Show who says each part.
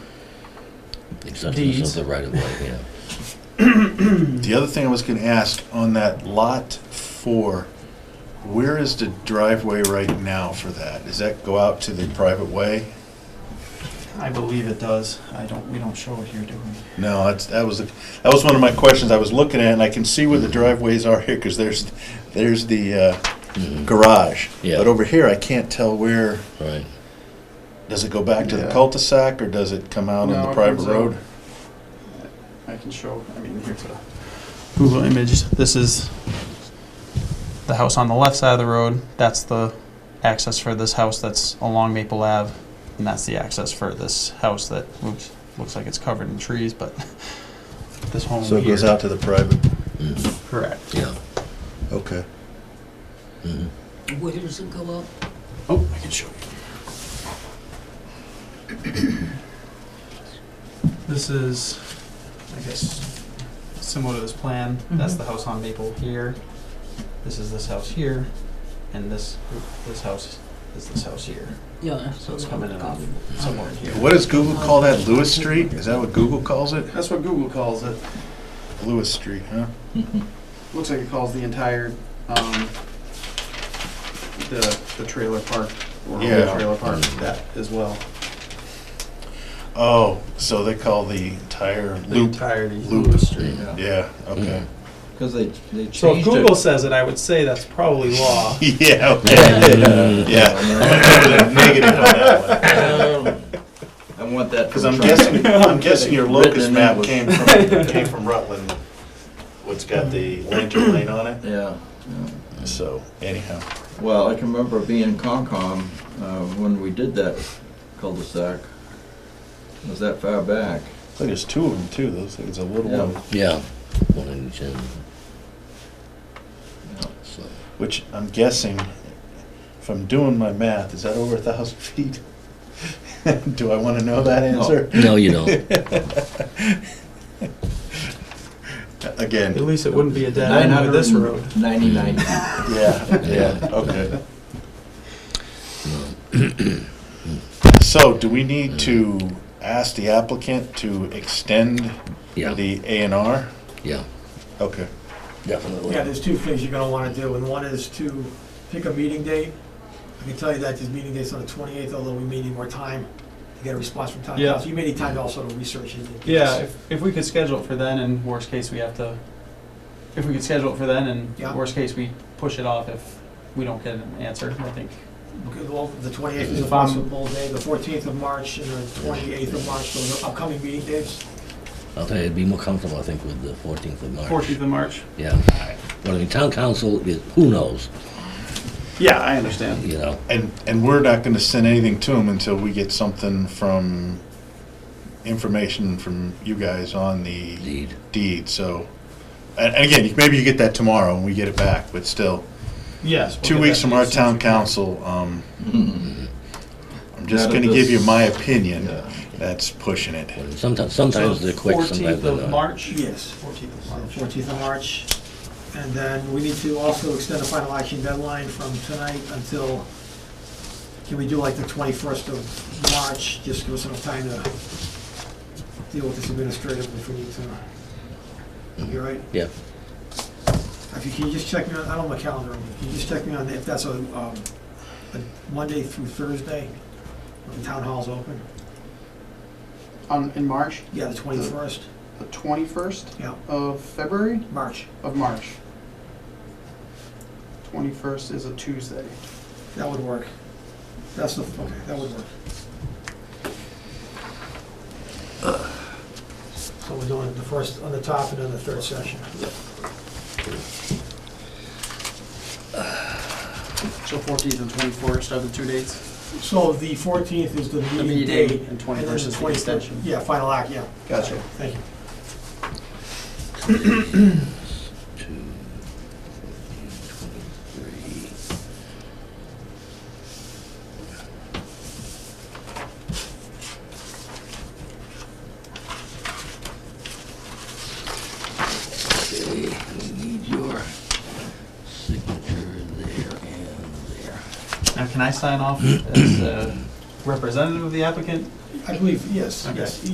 Speaker 1: Acceptance of
Speaker 2: Deeds.
Speaker 1: the right of way, yeah.
Speaker 3: The other thing I was going to ask on that lot four, where is the driveway right now for that? Does that go out to the private way?
Speaker 2: I believe it does. I don't, we don't show it here, do we?
Speaker 3: No, that's, that was, that was one of my questions I was looking at, and I can see where the driveways are here, because there's, there's the uh,
Speaker 1: Mhm,
Speaker 3: garage.
Speaker 1: Yeah.
Speaker 3: But over here, I can't tell where,
Speaker 1: Right.
Speaker 3: does it go back to the
Speaker 2: Yeah.
Speaker 3: cul-de-sac, or does it come out
Speaker 2: No,
Speaker 3: on the
Speaker 2: it
Speaker 3: private
Speaker 2: comes out.
Speaker 3: road?
Speaker 2: I can show, I mean, here's a Google image. This is the house on the left side of the road. That's the access for this house that's along Maple Ave. And that's the access for this house that looks, looks like it's covered in trees, but this home
Speaker 3: So it goes
Speaker 2: here-
Speaker 3: out to the private,
Speaker 1: Mm,
Speaker 2: Correct.
Speaker 1: Yeah.
Speaker 3: okay.
Speaker 1: mhm.
Speaker 4: Where does it go up?
Speaker 2: Oh, I can show you. This is, I guess, similar to this plan.
Speaker 5: Mm-hmm.
Speaker 2: That's
Speaker 4: Mhm.
Speaker 2: the house on Maple here. This is this house here, and this, this house is this house here.
Speaker 4: Yeah.
Speaker 2: So it's coming in off somewhere in here.
Speaker 3: What does Google call that, Lewis Street? Is that what Google calls it?
Speaker 2: That's what Google calls it.
Speaker 3: Lewis Street, huh?
Speaker 2: Looks like it calls the entire, um, the, the trailer park, or
Speaker 3: the Yeah. Mm-hmm. trailer
Speaker 1: park, that
Speaker 2: as well.
Speaker 3: Oh, so they call the entire
Speaker 2: The
Speaker 3: loop,
Speaker 2: entirety.
Speaker 3: Loop.
Speaker 2: Lewis Street, yeah.
Speaker 3: yeah, okay.
Speaker 5: Because they, they changed
Speaker 2: So if
Speaker 5: it.
Speaker 2: Google says it, I would say that's probably law.
Speaker 5: Mm.
Speaker 3: Yeah, okay, yeah. I'm gonna go with a Negative on that one.
Speaker 1: Mm-hmm.
Speaker 2: Um.
Speaker 5: I want that.
Speaker 3: Because I'm guessing, I'm guessing your locus
Speaker 5: Written in
Speaker 3: map
Speaker 5: English.
Speaker 3: came from, came from Rutland, what's got the lantern lane on it,
Speaker 5: Yeah. yeah.
Speaker 3: so anyhow.
Speaker 5: Well, I can remember being in Concom uh, when we did that cul-de-sac. It was that far back.
Speaker 3: I think there's two of them too, those things, a little
Speaker 5: Yeah.
Speaker 3: one,
Speaker 1: Yeah, one in each end, so.
Speaker 3: which I'm guessing, if I'm doing my math, is that over a thousand feet? Do I want to know that
Speaker 5: No.
Speaker 3: answer?
Speaker 1: No, you don't.
Speaker 3: Again,
Speaker 2: At least it wouldn't be a dead
Speaker 5: Nine
Speaker 2: end with
Speaker 5: hundred
Speaker 2: this road.
Speaker 5: Ninety-nine.
Speaker 3: yeah, yeah,
Speaker 1: Yeah.
Speaker 3: okay. So do we need to ask the applicant to extend
Speaker 1: Yeah,
Speaker 3: the A and R?
Speaker 1: yeah,
Speaker 3: Okay.
Speaker 1: definitely.
Speaker 6: Yeah, there's two things you're gonna wanna do, and one is to pick a meeting date. I can tell you that this meeting date's on the twenty-eighth, although we may need more time to get a response from town
Speaker 2: Yeah.
Speaker 6: council. You may need time to also to research it.
Speaker 2: Yeah, if, if we could schedule it for then, and worst case, we have to, if we could schedule it for then, and
Speaker 6: Yeah.
Speaker 2: worst case, we push it off if we don't get an answer, I think.
Speaker 6: Okay, well, the twenty-eighth is a
Speaker 2: If I'm-
Speaker 6: possible day, the fourteenth of March and the twenty-eighth of March, those are upcoming meeting dates.
Speaker 1: I'll tell you, it'd be more comfortable, I think, with the fourteenth of March.
Speaker 2: Fourteenth of March?
Speaker 1: Yeah. But I mean, town council is, who knows,
Speaker 2: Yeah, I understand.
Speaker 1: you know?
Speaker 3: And, and we're not gonna send anything to them until we get something from, information from you guys on the
Speaker 1: Indeed.
Speaker 3: deed, so. And, and again, maybe you get that tomorrow and we get it back, but still,
Speaker 2: Yes. we'll
Speaker 3: two
Speaker 2: get
Speaker 3: weeks
Speaker 2: that
Speaker 3: from our
Speaker 2: as soon as we
Speaker 3: town
Speaker 2: can.
Speaker 3: council, um,
Speaker 5: Mm.
Speaker 3: I'm just
Speaker 5: None of
Speaker 3: gonna give you
Speaker 5: this-
Speaker 3: my opinion,
Speaker 5: Yeah.
Speaker 3: that's pushing it.
Speaker 1: Sometimes, sometimes they're quick, sometimes
Speaker 2: Fourteenth
Speaker 1: they're
Speaker 2: of
Speaker 1: not.
Speaker 2: March?
Speaker 6: Yes.
Speaker 2: Fourteenth of March.
Speaker 6: Fourteenth of March. And then we need to also extend the final action deadline from tonight until, can we do like the twenty-first of March? Just give us enough time to deal with this administratively if we need to. You all right?
Speaker 1: Yeah,
Speaker 6: If you can you just check me on, I don't have a calendar, on me. can you just check me on if that's a, um, a Monday through Thursday? when The town hall's open?
Speaker 7: on, in March,
Speaker 6: Yeah, the twenty-first,
Speaker 7: the 21st
Speaker 6: yeah,
Speaker 7: of February,
Speaker 6: March.
Speaker 7: of March. 21st is a Tuesday.
Speaker 6: That would work. That's the, okay, that would work. So we're doing the first, on the top and then the third session.
Speaker 7: So 14th and 21st are the two dates?
Speaker 6: So the fourteenth is the
Speaker 7: The
Speaker 6: meeting
Speaker 7: meeting
Speaker 6: date.
Speaker 7: and 21st is the
Speaker 6: 21st
Speaker 7: extension.
Speaker 6: Yeah, final act, yeah.
Speaker 7: Gotcha.
Speaker 6: Thank you.
Speaker 1: two, fourteen, twenty-three. Okay, we need your signature there and there.
Speaker 2: Now, can I sign off as a representative of the applicant?
Speaker 6: I believe, yes,
Speaker 2: Okay.
Speaker 6: yes.